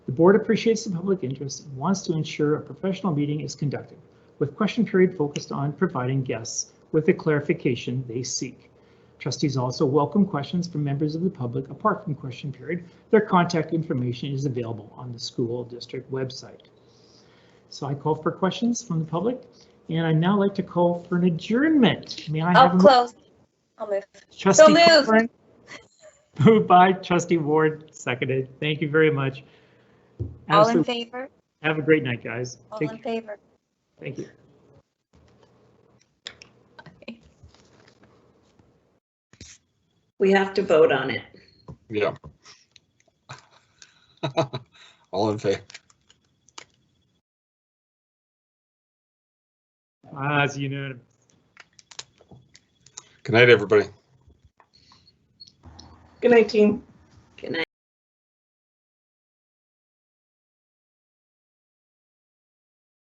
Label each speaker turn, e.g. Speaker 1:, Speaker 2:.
Speaker 1: The board appreciates the public interest and wants to ensure a professional meeting is conducted, with question period focused on providing guests with the clarification they seek. Trustees also welcome questions from members of the public apart from question period. Their contact information is available on the school district website. So I call for questions from the public, and I'd now like to call for an adjournment. May I have?
Speaker 2: I'll
Speaker 1: a
Speaker 2: Oh, close. I'll move.
Speaker 1: Trustee
Speaker 2: moved.
Speaker 1: Cochran. Moved by trustee Ward, seconded. Thank you very much.
Speaker 2: All in
Speaker 1: Absolute-
Speaker 2: favor?
Speaker 1: Have a great night, guys.
Speaker 2: All
Speaker 1: Take
Speaker 2: in
Speaker 1: care.
Speaker 2: favor?
Speaker 1: Thank you.
Speaker 3: We have to vote on it.
Speaker 4: Yeah. All in favor?
Speaker 1: Ah, it's unanimous.
Speaker 4: Good night, everybody.
Speaker 3: Good night, team.